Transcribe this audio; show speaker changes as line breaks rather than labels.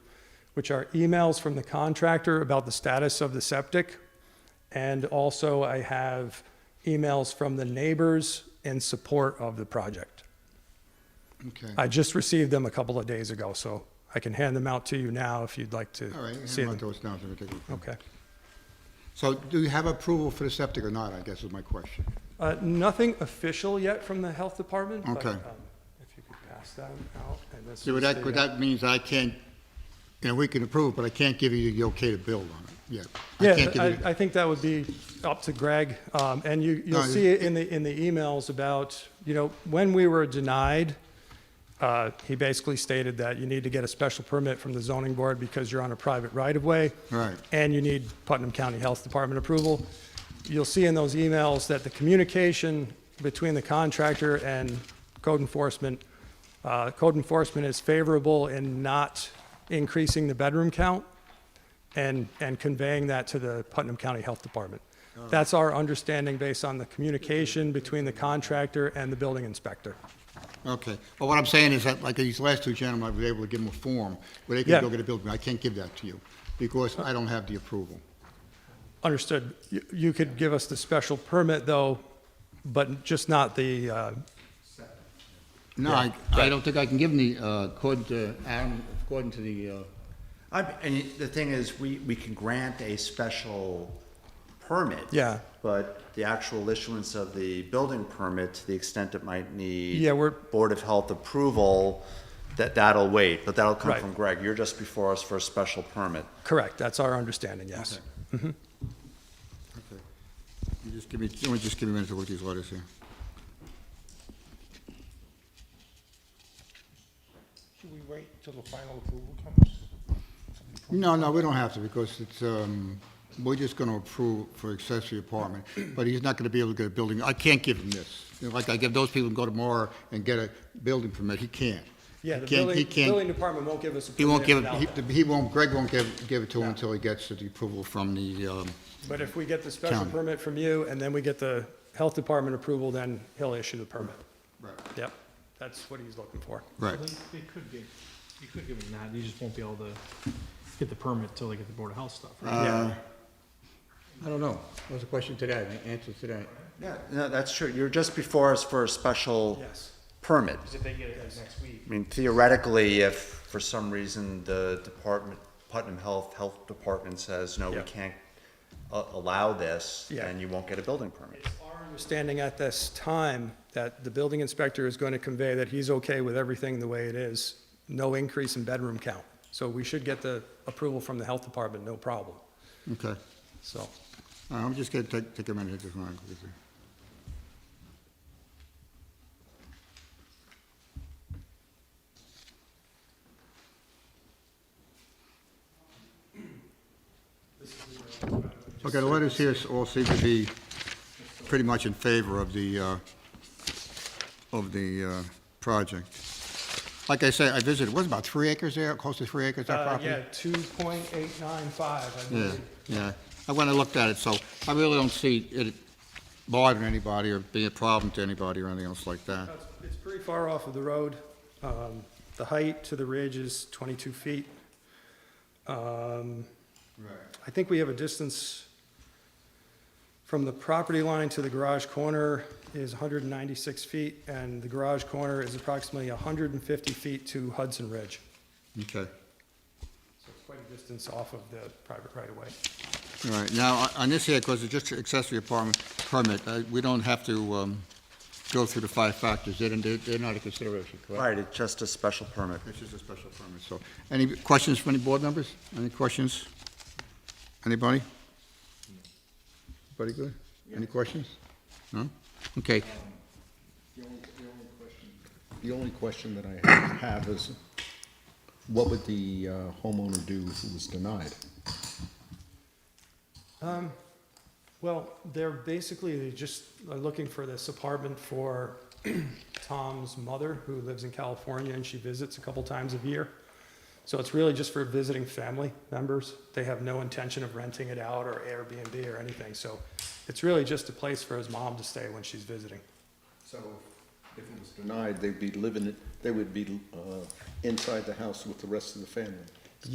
which are emails from the contractor about the status of the septic. And also I have emails from the neighbors in support of the project.
Okay.
I just received them a couple of days ago, so I can hand them out to you now if you'd like to
All right,
see
hand out
them.
those now, so we take a-
Okay.
So do you have approval for the septic or not, I guess is my question.
Uh, Nothing official yet from the health department. but,
Okay.
um, If you could pass them out. and this
See,
is
what that,
the,
what
uh,
that means, I can't, you know, we can approve, but I can't give you the okay to build on it, yet. I
Yeah,
can't give
I,
you-
I think that would be up to Greg. Um, and you, you'll
No,
see it in the, in the emails about, you know, when we were denied, uh, he basically stated that you need to get a special permit from the zoning board because you're on a private right of way.
Right.
And you need Putnam County Health Department approval. You'll see in those emails that the communication between the contractor and code enforcement, uh, code enforcement is favorable in not increasing the bedroom count and, and conveying that to the Putnam County Health Department. That's our understanding based on the communication between the contractor and the building inspector.
Okay, well, what I'm saying is that, like, these last two gentlemen, I was able to give them a form where they
Yeah.
can go get a building, I can't give that to you, because I don't have the approval.
Understood. You- You could give us the special permit, though, but just not the, uh,
No, I, I don't think I can give them the, uh, according to, Adam, according to the, uh,
I, and the thing is, we, we can grant a special permit.
Yeah.
But the actual issuance of the building permit, to the extent it might need.
Yeah, we're-
Board of Health approval, that, that'll wait, but that'll come
Right.
from Greg. You're just before us for a special permit.
correct, that's our understanding, yes.
okay. You just give me, you want to just give me a minute to look at these letters here.
Should we wait till the final approval comes?
No, no, we don't have to, because it's, um, we're just gonna approve for accessory apartment, but he's not gonna be able to get a building, I can't give him this. You know, Like I give those people who go tomorrow and get a building permit, he can't.
Yeah,
He
the
can't- he
building,
can't-
building department won't give us a
He won't
permit
give,
without
it.
that.
he he won't, Greg won't give, give it to him until he gets the approval from the, um,
But if we get the special
County.
permit from you, and then we get the health department approval, then he'll issue the permit. Yep, that's what he's looking for.
right.
They they could get, you could give them that, you just won't be able to get the permit till they get the Board of Health stuff, right?
Uh,
Yeah.
I don't know, that was a question today, the answer today.
Yeah, no, that's true. You're just before us for a special.
Yes.
Permit.
If they get it like next week.
I mean, theoretically, if for some reason the department, Putnam Health, Health Department says, no, we
Yeah.
can't a- allow this,
Yeah.
then you won't get a building permit.
Our understanding at this time, that the building inspector is going to convey that he's okay with everything the way it is, no increase in bedroom count. So we should get the approval from the health department, no problem.
Okay, All right,
So,
Uh, I'm just gonna take, take a minute, just wanna. Okay, the letters here all seem to be pretty much in favor of the, uh, of the uh, project. Like I say, I visited, was it about three acres there, close to three acres, that
uh,
property?
yeah, two point eight nine five, I
Yeah,
believe.
yeah. I went and looked at it, so I really don't see it bothering anybody or being a problem to anybody or anything else like that.
It's- It's pretty far off of the road. Um, the height to the ridge is twenty-two feet. Um, I think we have a distance from the property line to the garage corner is 196 feet, and the garage corner is approximately 150 feet to Hudson Ridge.
Okay.
So it's quite a distance off of the private right-of-way.
All right, now, on- on this here, because it's just accessory apartment permit, uh, we don't have to um, go through the five factors. They're they're- they're not a consideration, correct?
Right, it's just a special permit.
It's just a special permit, so. Any questions from any board members? Any questions? Anybody? Anybody good? Any questions? No? Okay.
The only the only question the only question that I have- have is, what would the uh, homeowner do who was denied?
Well, they're basically just looking for this apartment for Tom's mother, who lives in California, and she visits a couple times a year. So it's really just for visiting family members. They have no intention of renting it out or Airbnb or anything. So it's really just a place for his mom to stay when she's visiting.
So if it was denied, they'd be living, it- they would be uh, inside the house with the rest of the family.